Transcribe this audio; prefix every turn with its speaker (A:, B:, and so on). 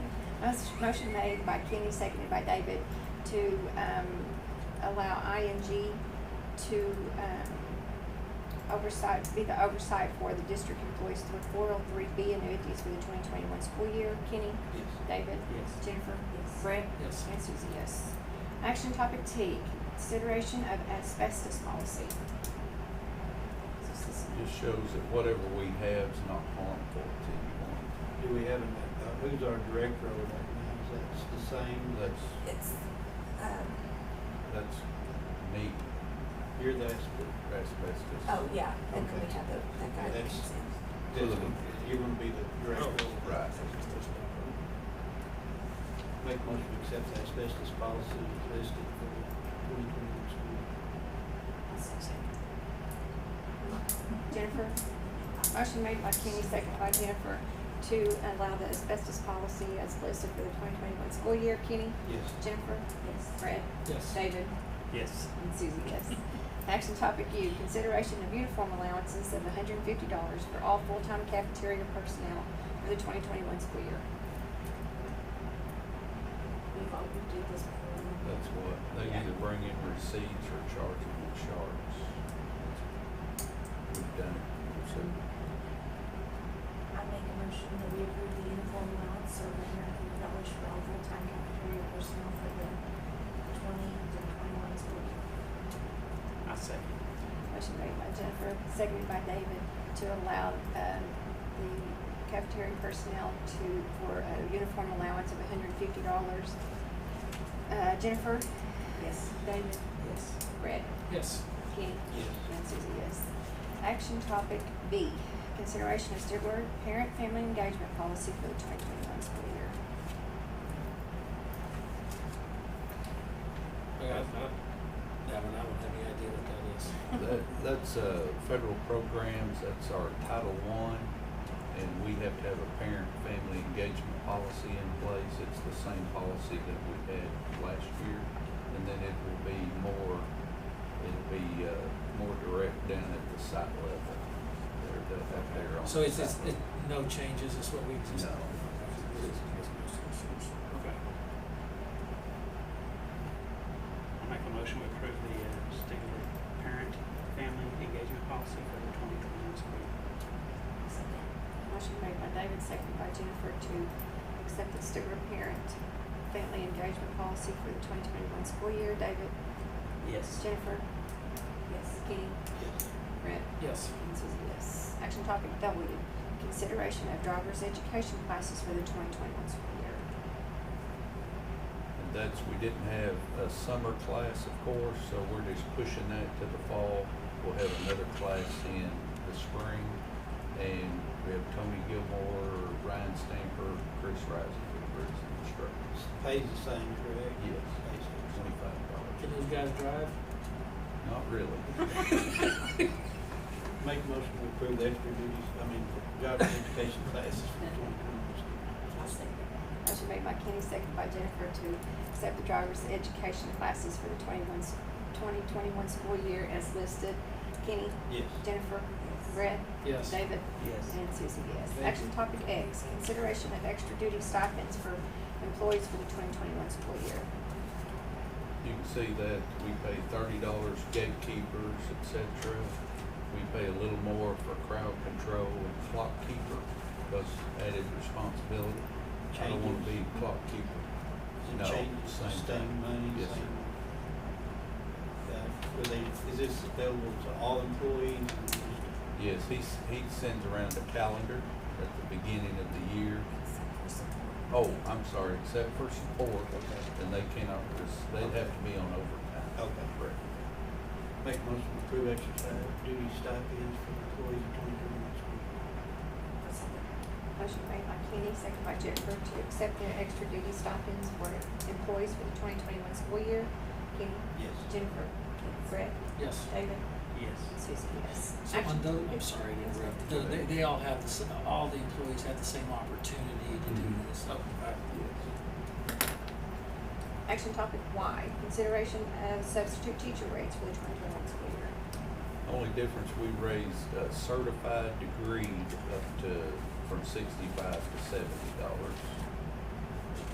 A: Mus- Motion made by Kenny, seconded by David, to, um, allow ING to, um, oversight, be the oversight for the district employees through four oh three B annuities for the twenty twenty-one school year. Kenny?
B: Yes.
A: David?
B: Yes.
A: Jennifer? Yes. Brett?
B: Yes.
A: And Susie, yes. Action topic T, consideration of asbestos policy. This is-
C: Just shows that whatever we have is not harmful to anyone.
D: Do we have, an- uh, who's our director over there now? Is that the same?
C: That's,
E: It's, um,
C: that's neat
D: You're the, expert.
C: asbestos.
E: oh, yeah, and then we
D: Okay.
E: have the, that guy that
D: That's-
E: comes in.
D: that's gonna- you're gonna be the director. over there.
C: Oh, Right.
D: Make motion to accept the asbestos policy as listed for the twenty twenty-one school.
A: Jennifer? Motion made by Kenny, seconded by Jennifer, to allow the asbestos policy as listed for the twenty twenty-one school year. Kenny?
D: Yes.
A: Jennifer? Yes. Brett?
B: Yes.
A: David?
B: Yes.
A: And Susie, yes. Action topic U, consideration of uniform allowances of hundred and fifty dollars for all full-time cafeteria personnel for the twenty twenty-one school year.
E: We've all, we do this before.
C: That's what, they
A: Yeah.
C: either bring in receipts or charge them with sharps. That's- We've done it, so,
F: I make a motion that we approve the uniform allowance of one hundred and fifty dollars for all full-time cafeteria personnel for the twenty to twenty-one school year.
B: I second.
A: Motion made by Jennifer, seconded by David, to allow, um, the cafeteria personnel to, for a uniform allowance of hundred and fifty dollars. Uh, Jennifer? Yes. David?
B: Yes.
A: Brett?
B: Yes.
A: Kenny?
D: Yes.
A: And Susie, yes. Action topic B, consideration of Stillwater parent family engagement policy for the twenty twenty-one school year.
G: I, I, I, I mean, I don't have any idea what that is.
C: that, that's, uh, federal programs, that's our Title One, and we have to have a parent-family engagement policy in place. It's the same policy that we had last year, and then it will be more, it'll be, uh, more direct down at the site level. They're, they'll have their own.
G: So it's, it's,
C: site
G: it,
C: level.
G: no changes, it's what we exist.
C: No.
G: Okay.
H: I make a motion to approve the uh, Stigler parent family engagement policy for the twenty twenty-one school year.
A: Motion made by David, seconded by Jennifer to accept the Stillwater parent family engagement policy for the twenty twenty-one school year. David?
B: Yes.
A: Jennifer? Yes. Kenny?
D: Yes.
A: Brett?
G: Yes,
A: And Susie, yes. Action topic W, consideration of driver's education classes for the twenty twenty-one school year.
C: And that's, we didn't have a summer class, of course, so we're just pushing that to the fall. We'll have another class in the spring, and we have Tony Gilmore, Ryan Stamper, Chris Riser, as instructors.
D: Pays the same, correct?
C: Yes.
D: Pays the same.
C: Twenty-five
G: can
C: dollars.
G: those guys drive?
C: Not really.
D: Make motion to approve the extra duties, I mean, job education classes for twenty twenty-one school.
E: I'll say that.
A: Motion made by Kenny, seconded by Jennifer to accept the driver's education classes for the 21 s- 2021 school year as listed. Kenny,
D: Yes.
A: Jennifer, Brett,
G: Yes.
A: David,
B: Yes.
A: and Susie, yes.
D: Thank you.
A: Action topic X, consideration of extra duty stipends for employees for the twenty twenty-one school year.
C: You can see that we pay thirty dollars gatekeepers, et cetera. We pay a little more for crowd control and clock keeper, because added responsibility. I don't wanna be clock keeper.
D: Is it
C: No,
D: changes,
C: same
D: same
C: thing.
D: money,
C: Yes,
D: same? Uh, Were they, is this available to all employees? or just-
C: Yes, he, s- he sends around a calendar at the beginning of the year.
E: Except for support.
C: Oh, I'm sorry, except for support, and they cannot, rec- they'd have to be on overtime.
D: Okay.
C: Correct.
D: Make a motion to approve exercise duty stipends for employees of twenty twenty-one school.
E: I'll say that.
A: Motion made by Kenny, seconded by Jennifer to accept the extra duty stipends for employees for the twenty twenty-one school year. Kenny,
D: Yes.
A: Jennifer, Brett,
G: Yes.
A: David,
H: Yes.
A: and Susie, yes.
G: So
A: Action-
G: on those, I'm sorry to interrupt, The- they, they all have the, s- all the employees have the same opportunity to do
B: Mm-hmm.
C: Mhm.
G: this. Oh, I-
A: Action topic Y, consideration of substitute teacher rates for the twenty twenty-one school year.
C: Only difference, we raised a certified degree up to, from sixty-five to seventy dollars.